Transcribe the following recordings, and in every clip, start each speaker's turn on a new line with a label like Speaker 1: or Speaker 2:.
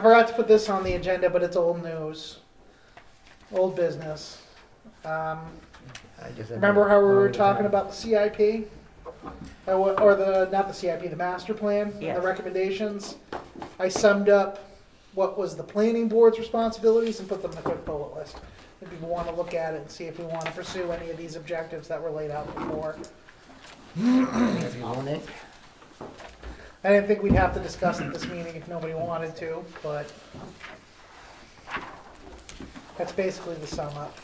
Speaker 1: forgot to put this on the agenda, but it's old news, old business. Um,
Speaker 2: I just
Speaker 1: Remember how we were talking about the CIP? Uh, wha- Or the, not the CIP, the master plan, and the
Speaker 3: Yes.
Speaker 1: recommendations? I summed up what was the planning board's responsibilities and put them in a quick bullet list. If people want to look at it and see if we want to pursue any of these objectives that were laid out before.
Speaker 2: If you want it,
Speaker 1: I didn't think we'd have to discuss at this meeting if nobody wanted to, but that's basically the sum up.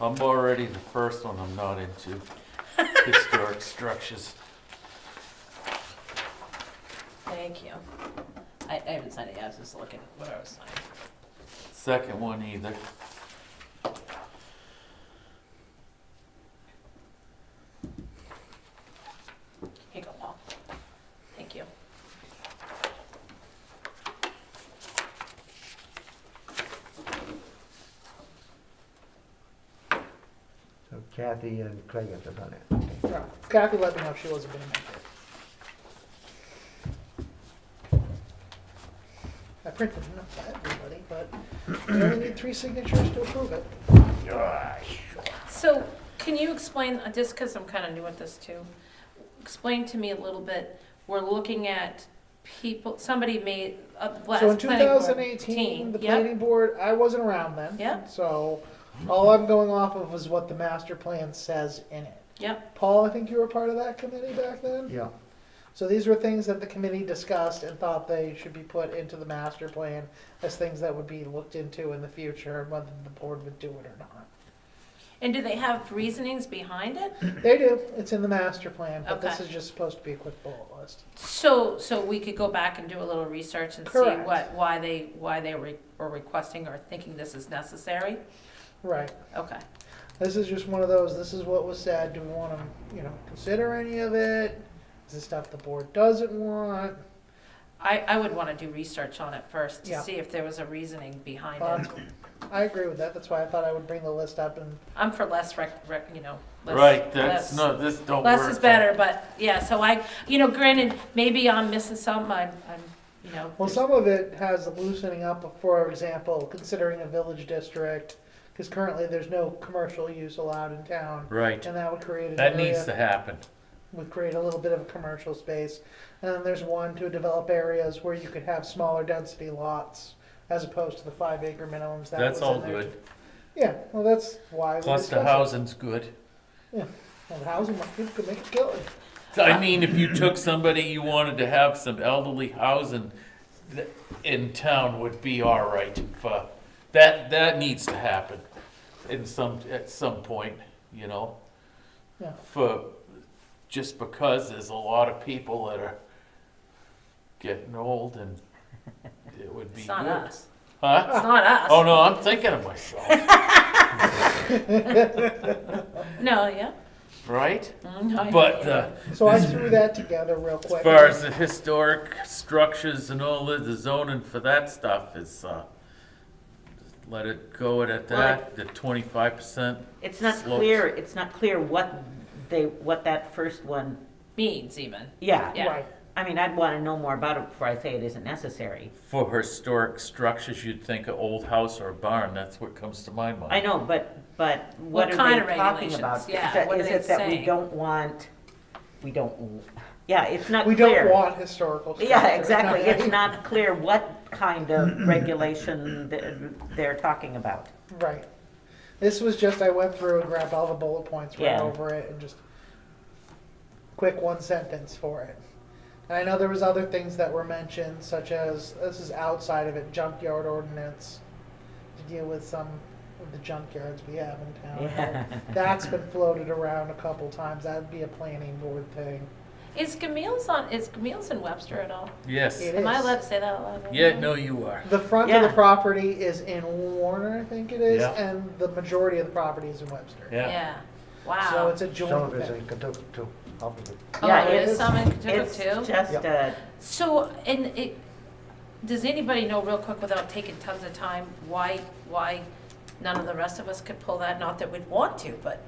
Speaker 4: I'm already the first one I'm not into historic structures.
Speaker 3: Thank you. I, I haven't signed it yet, I was just looking at what I was signing.
Speaker 4: Second one either.
Speaker 3: Here you go, Paul. Thank you.
Speaker 2: so Kathy and Craig have to run it. Okay.
Speaker 1: No, Kathy let me know if she wasn't gonna make it. I printed enough for everybody, but we only need three signatures to approve it.
Speaker 3: So, can you explain, uh, just because I'm kind of new at this too, explain to me a little bit, we're looking at people, somebody made, uh, last
Speaker 1: So in
Speaker 3: planning board
Speaker 1: 2018,
Speaker 3: team,
Speaker 1: the
Speaker 3: yep,
Speaker 1: planning board, I wasn't around then.
Speaker 3: Yep.
Speaker 1: So all I'm going off of is what the master plan says in it.
Speaker 3: Yep,
Speaker 1: Paul, I think you were part of that committee back then?
Speaker 2: Yeah,
Speaker 1: So these were things that the committee discussed and thought they should be put into the master plan as things that would be looked into in the future, whether the board would do it or not.
Speaker 3: and do they have reasonings behind it?
Speaker 1: They do. It's in the master plan, but this
Speaker 3: Okay.
Speaker 1: is just supposed to be a quick bullet list.
Speaker 3: So, so we could go back and do a little research and see
Speaker 1: Correct.
Speaker 3: what, why they, why they re- were requesting or thinking this is necessary?
Speaker 1: Right.
Speaker 3: Okay,
Speaker 1: This is just one of those, this is what was said. Do we want to, you know, consider any of it? Is this stuff the board doesn't want?
Speaker 3: I, I would want to do research on it first to
Speaker 1: Yeah.
Speaker 3: see if there was a reasoning behind
Speaker 1: Uh,
Speaker 3: it.
Speaker 1: I agree with that. That's why I thought I would bring the list up and
Speaker 3: I'm for less rec, rec, you know, less.
Speaker 4: Right, that's
Speaker 3: less-
Speaker 4: no, this don't work.
Speaker 3: Less is better, but, yeah, so I, you know, granted, maybe I'm missing some, I'm, I'm, you know.
Speaker 1: Well, some of it has loosening up, for example, considering a village district, because currently there's no commercial use allowed in town.
Speaker 4: Right,
Speaker 1: And that would create an
Speaker 4: that needs to
Speaker 1: area,
Speaker 4: happen.
Speaker 1: would create a little bit of a commercial space. And then there's one to develop areas where you could have smaller density lots as opposed to the five acre minimums that was
Speaker 4: That's all
Speaker 1: in there.
Speaker 4: good.
Speaker 1: Yeah, well, that's why. we
Speaker 4: Cluster
Speaker 1: discussed it.
Speaker 4: housing's good.
Speaker 1: Well, the housing market could make a killing.
Speaker 4: I mean, if you took somebody you wanted to have some elderly housing th- in town would be all right. for- That, that needs to happen in some, at some point, you know?
Speaker 1: Yeah.
Speaker 4: For, just because there's a lot of people that are getting old and it would be
Speaker 3: It's not
Speaker 4: good.
Speaker 3: us,
Speaker 4: Huh?
Speaker 3: it's not us.
Speaker 4: Oh, no, I'm thinking of myself,
Speaker 3: No, yeah,
Speaker 4: right?
Speaker 3: Mm, I-
Speaker 4: But uh, the,
Speaker 1: So I threw that together real
Speaker 4: As
Speaker 1: quick.
Speaker 4: far as the historic structures and all that, the zoning for that stuff is, uh, let it go at that, the twenty-five percent.
Speaker 5: It's not
Speaker 4: Slopes.
Speaker 5: clear, it's not clear what they, what that first one,
Speaker 3: Means even,
Speaker 5: yeah.
Speaker 3: Yeah.
Speaker 1: Right.
Speaker 5: I mean, I'd want to know more about it before I say it isn't necessary.
Speaker 4: For historic structures, you'd think an old house or a barn, that's what comes to my
Speaker 5: I
Speaker 4: mind.
Speaker 5: know, but, but what
Speaker 3: What
Speaker 5: are
Speaker 3: kind of
Speaker 5: they talking about?
Speaker 3: regulations? Yeah,
Speaker 5: Is that-
Speaker 3: what are
Speaker 5: is
Speaker 3: they
Speaker 5: it that we
Speaker 3: saying?
Speaker 5: don't want, we don't, w- yeah, it's not
Speaker 1: We
Speaker 5: clear.
Speaker 1: don't want historical.
Speaker 5: Yeah,
Speaker 1: structures,
Speaker 5: exactly.
Speaker 1: not-
Speaker 5: It's not clear what kind of regulation th- they're talking about.
Speaker 1: Right. This was just, I went through and grabbed all the bullet points, ran
Speaker 5: Yeah.
Speaker 1: over it, and just quick one sentence for it. And I know there was other things that were mentioned, such as, this is outside of it, junkyard ordinance, to deal with some of the junkyards we have in town.
Speaker 5: Yeah.
Speaker 1: That's been floated around a couple times, that'd be a planning board thing.
Speaker 3: is Camille's on, is Camille's in Webster at all?
Speaker 4: Yes,
Speaker 1: It
Speaker 3: Am I
Speaker 1: is.
Speaker 3: allowed to say that out loud?
Speaker 4: yeah, no, you are.
Speaker 1: The front of the
Speaker 5: Yeah.
Speaker 1: property is in Warner, I think it is,
Speaker 4: Yeah.
Speaker 1: and the majority of the property is in Webster.
Speaker 4: Yeah,
Speaker 3: Yeah,
Speaker 1: So
Speaker 3: wow.
Speaker 1: it's a joint
Speaker 2: some of it's
Speaker 1: venture.
Speaker 2: in Kentucky too, half of it.
Speaker 3: Oh,
Speaker 5: Yeah,
Speaker 3: there's
Speaker 1: it's-
Speaker 3: some in Kentucky
Speaker 5: It's
Speaker 3: too?
Speaker 5: just
Speaker 2: Yep.
Speaker 5: a,
Speaker 3: So, and it, does anybody know real quick without taking tons of time, why, why none of the rest of us could pull that? Not that we'd want to, but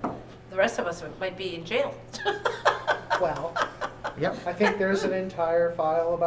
Speaker 3: the rest of us would- might be in jail.
Speaker 1: Well,
Speaker 2: Yep.
Speaker 1: I think there's an entire file about